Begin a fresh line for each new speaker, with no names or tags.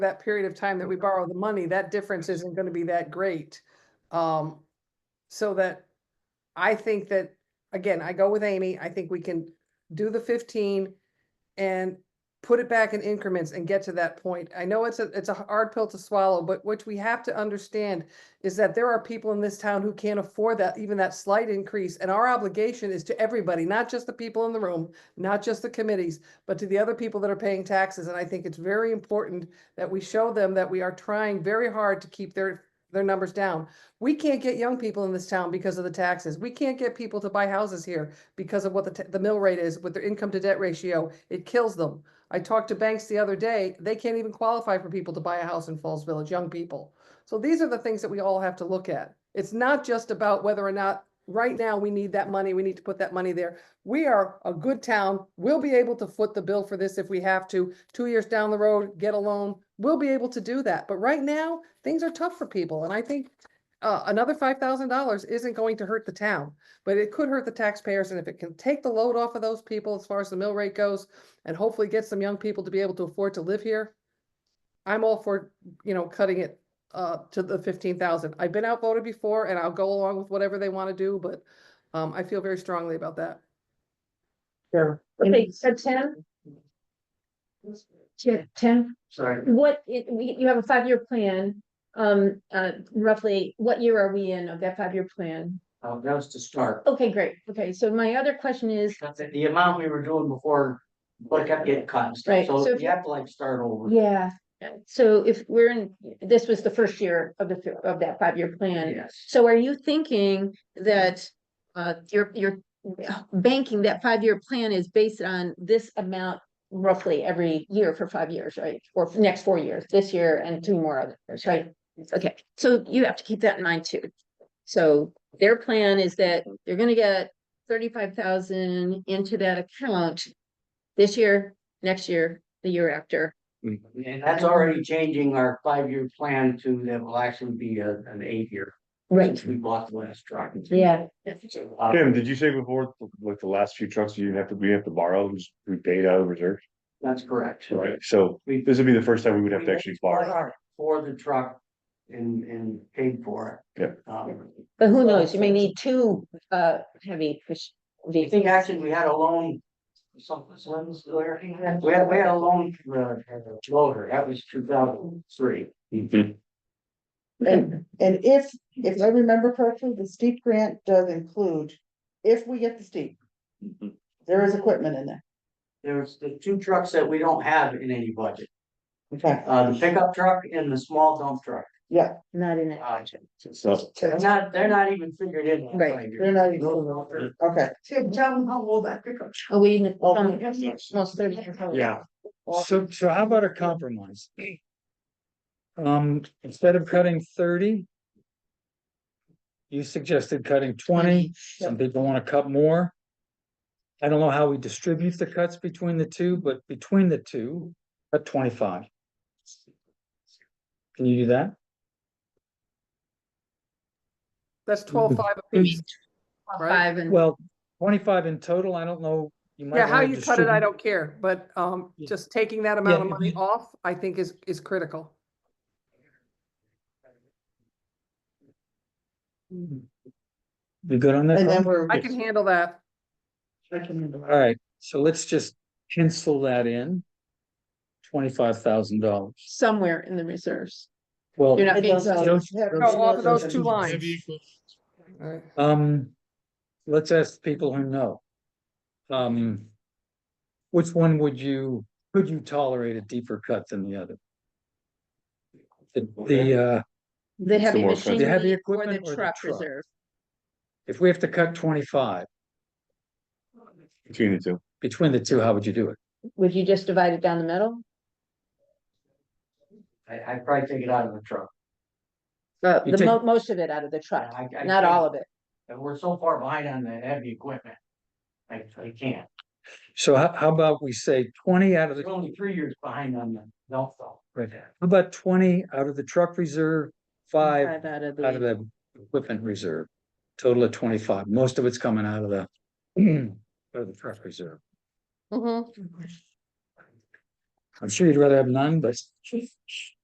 that period of time that we borrow the money, that difference isn't gonna be that great. Um, so that, I think that, again, I go with Amy, I think we can do the fifteen and put it back in increments and get to that point. I know it's a, it's a hard pill to swallow, but what we have to understand is that there are people in this town who can't afford that, even that slight increase, and our obligation is to everybody, not just the people in the room, not just the committees, but to the other people that are paying taxes, and I think it's very important that we show them that we are trying very hard to keep their, their numbers down. We can't get young people in this town because of the taxes. We can't get people to buy houses here because of what the, ta- the mill rate is with their income to debt ratio. It kills them. I talked to banks the other day, they can't even qualify for people to buy a house in Falls Village, young people. So these are the things that we all have to look at. It's not just about whether or not, right now, we need that money, we need to put that money there. We are a good town. We'll be able to foot the bill for this if we have to. Two years down the road, get a loan. We'll be able to do that. But right now, things are tough for people. And I think uh, another five thousand dollars isn't going to hurt the town, but it could hurt the taxpayers. And if it can take the load off of those people as far as the mill rate goes and hopefully get some young people to be able to afford to live here, I'm all for, you know, cutting it uh, to the fifteen thousand. I've been outvoted before and I'll go along with whatever they want to do, but um, I feel very strongly about that.
Sure.
Okay, so ten, ten, ten,
Sorry.
what, it- we- you have a five-year plan. Um, uh, roughly, what year are we in of that five-year plan?
Uh, that was to start.
Okay, great. Okay, so my other question is,
That's it. The amount we were doing before, but it kept getting cut. and stuff.
Right, so
So
if
you
you-
have to like start over.
yeah, so if we're in, this was the first year of the, fi- of that five-year plan.
Yes.
So are you thinking that, uh, your, your banking, that five-year plan is based on this amount roughly every year for five years, right? Or for the next four years, this year and two more other years, right? Okay, so you have to keep that in mind too. So their plan is that they're gonna get thirty-five thousand into that account this year, next year, the year after.
And that's already changing our five-year plan to that will actually be a, an eight-year. Since we bought the last truck.
Yeah.
Uh,
Tim, did you say before, like the last few trucks, you have to, we have to borrow, them, we paid out of reserve,
That's correct.
right? So
We-
this would be the first time we would have to actually borrow.
For the truck and, and paid for it. Yeah. Um,
But who knows, you may need two, uh, heavy push
I
vehicles.
think actually we had a loan. Something, something's there. We had, we had a loan for a for a loader, that was two thousand three.
And, and if, if I remember correctly, the steep grant does include, if we get the steep, there is equipment in there.
There's the two trucks that we don't have in any budget,
Okay,
uh, the pickup truck and the small dump truck.
yeah,
Not in it.
Uh,
So,
They're not, they're not even figured in. that
Right.
figure.
they're not even, okay.
Tim, tell them how old that pickup. truck
Oh, we,
Oh,
almost thirty. years old.
Yeah. So, so how about a compromise? Um, instead of cutting thirty. You suggested cutting twenty, some people wanna cut more. I don't know how we distribute the cuts between the two, but between the two, cut twenty-five. Can you do that?
That's
Mm-hmm.
twelve-five apiece.
Maybe
Right.
Five and.
Well, twenty-five in total, I don't know. might
Yeah, how you
wanna
cut it, I
distribute-
don't care, but um,
Yeah.
just taking that amount of
if
money
you-
off, I think is, is critical.
You good on that?
And then
Tom?
we're,
I can handle that.
All right, so let's just pencil that in. Twenty-five thousand dollars.
somewhere in the reserves.
Well,
You're not
It
being
does. uh,
so-
those-
Go off of those two
Those-
lines. Alright.
um, let's ask people who know. Um, which one would you, could you tolerate a deeper cut than the other? The, the, uh,
The heavy
more expensive.
machinery
The heavy
or the
equipment or the
truck
truck?
reserve.
if we have to cut twenty-five
between the two,
between the two, how would you do it?
Would you just divide it down the middle?
I, I'd probably take it out of the truck.
The,
You
the
take-
mo- most of it out of the truck,
I- I
not
think-
all of it.
And we're so far behind on the heavy equipment. I, I can't.
So how, how about we say twenty out of the
We're only three years behind on the dump though.
Right, how about twenty out of the truck reserve, five
out of
out of
the,
the equipment reserve? Total of twenty-five, most of it's coming out of the, out of the truck reserve.
Mhm.
I'm sure you'd rather have none, but